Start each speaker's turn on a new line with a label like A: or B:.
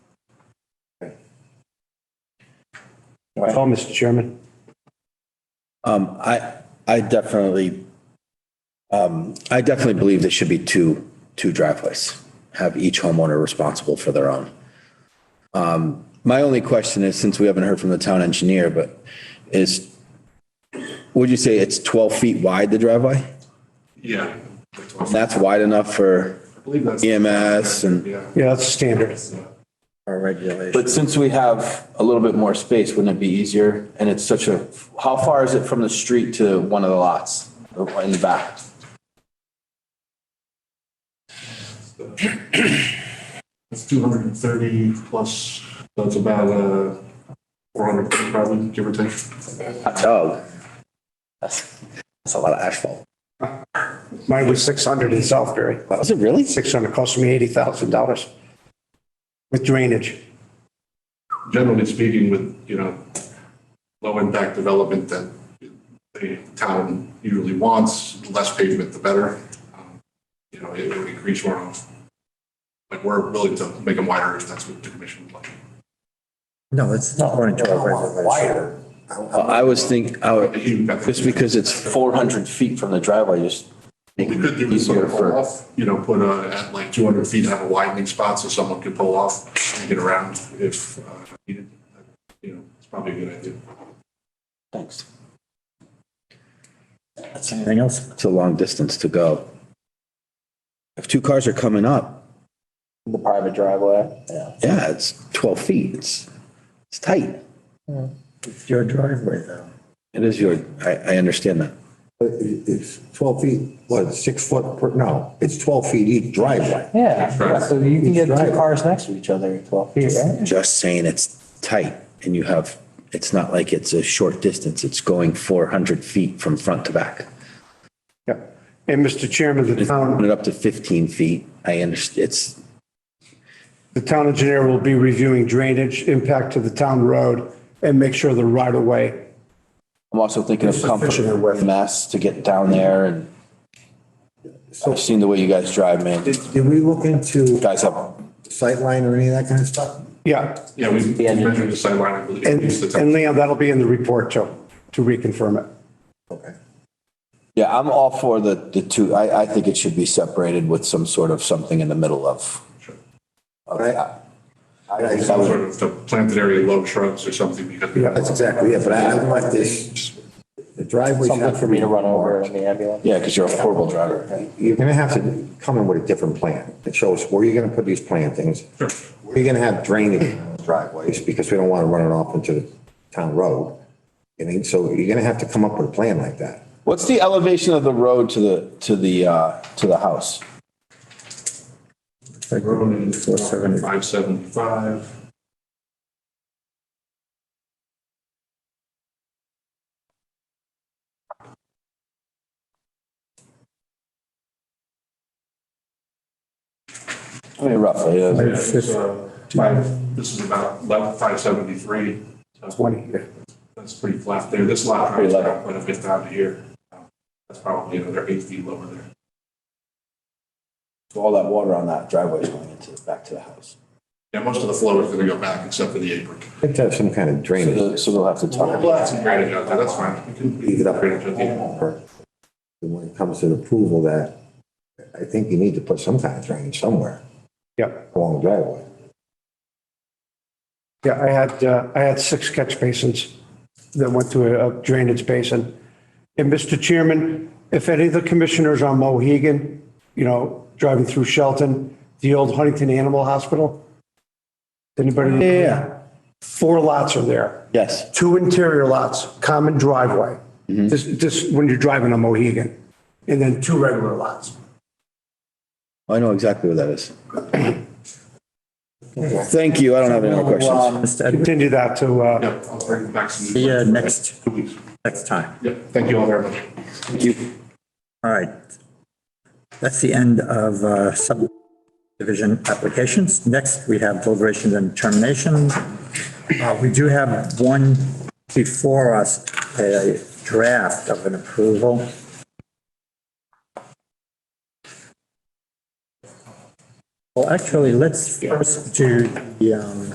A: That's all, Mr. Oh, Chairman.
B: Um, I, I definitely, um, I definitely believe there should be two, two driveways. Have each homeowner responsible for their own. Um, my only question is, since we haven't heard from the town engineer, but is, would you say it's twelve feet wide, the driveway?
C: Yeah.
B: That's wide enough for
C: I believe that's.
B: EMS and
C: Yeah.
A: Yeah, that's standard.
B: our regulation?
D: But since we have a little bit more space, wouldn't it be easier? And it's such a, how far is it from the street to one of the lots in the back?
C: It's two hundred and thirty plus, that's about, uh, four hundred probably, give or take.
B: Doug, that's, that's a lot of asphalt.
A: Mine was 600 in Southbury.
B: Was it really?
A: 600 cost me $80,000 with drainage.
C: Generally speaking with, you know, low impact development that the town usually wants, the less pavement, the better. Um, You know, it would increase runoff. But we're willing to make them wider if that's what the commission would like.
E: No, it's not running driveway. Wider.
B: I was think, I
C: I
B: would-
C: think that's-
B: just because it's
D: Four hundred feet from the driveway, just make
C: We could
D: it
C: do sort
D: easier
C: of pull
D: for.
C: off, you know, put a, at like two hundred feet, have a widening spot so someone could pull off and get around if uh, needed. You know, it's probably a good idea.
D: Thanks.
E: Anything else?
B: It's a long distance to go. If two cars are coming up,
D: The private driveway.
B: yeah, it's 12 feet. It's, it's tight.
E: It's your driveway though.
B: It is your, I, I understand that.
F: It- It's 12 feet, what, six foot, per no, it's 12 feet each driveway.
G: Yeah, so you can get two cars next to each other at 12 feet, right?
B: Just saying it's tight and you have, it's not like it's a short distance. It's going 400 feet from front to back.
A: Yeah. And Mr. Chairman, the
B: Put
A: town,
B: it up to 15 feet. I understand. It's,
A: the town engineer will be reviewing drainage impact to the town road and make sure the right of way.
D: I'm also thinking of comfort, mass to get down there and I've seen the way you guys drive, man. You
E: Did, did we look into
D: guys have
E: sightline or any of that kind of stuff?
A: Yeah.
C: Yeah, we we
G: Yeah.
C: measured the sideline, I believe.
A: And,
C: at least the top.
A: and Leon, that'll be in the report too, to reconfirm it.
E: Okay.
D: Yeah, I'm all for the, the two. I, I think it should be separated with some sort of something in the middle of. of that. I think that would-
C: Sort of the planted area, low shrubs or something because.
A: Yeah.
F: That's exactly it, but I I want this, the driveway.
G: Something for me to run over in the ambulance.
D: Yeah, because you're a horrible driver.
F: You're going to have to come in with a different plan that shows where you're going to put these plantings. Where you're going to have drainage driveways, because we don't want to run it off into the town road. I mean, so you're going to have to come up with a plan like that.
D: What's the elevation of the road to the, to the, uh, to the house?
E: Four seventy.
C: Five seventy-five.
D: I mean, roughly, uh,
C: Yeah, it's, uh, five, this is about level five seventy-three.
A: 20, yeah.
C: That's pretty flat there. This lot
D: Pretty
C: probably
D: level.
C: quite a bit down to here. That's probably another eight feet lower there.
D: so all that water on that driveway is going into, back to the house.
C: Yeah, most of the flow is going to go back except for the apron.
F: You have to have some kind of
D: So
F: drainage.
D: the- so they'll have to talk.
C: Well, that's granted, out there, that's fine. We can
F: Leave it up.
C: Granted, I think.
F: And When it comes to approval that, I think you need to put some kind of drainage somewhere
A: Yeah.
F: along the driveway.
A: Yeah, I had, uh, I had six catch basins that went to a a drainage basin. And Mr. Chairman, if any of the commissioners on Mohegan, you know, driving through Shelton, the old Huntington Animal Hospital, anybody?
B: Yeah.
A: Four lots are there.
B: yes.
A: Two interior lots, common driveway.
B: Mm-hmm.
A: This, this, when you're driving on Mohegan. And then two regular lots.
B: I know exactly what that is. Thank you. I don't have any more
G: um,
B: questions.
E: Mr. Edwards,
A: Continue that to, uh,
C: Yeah, I'll bring back some.
E: see you next,
C: Two weeks.
E: next time.
C: Yeah, thank you all very much.
B: Thank you.
E: All right. That's the end of uh, subdivision applications. Next, we have deliberations and terminations. Uh, We do have one before us, a draft of an approval. Well, actually, let's first do the um,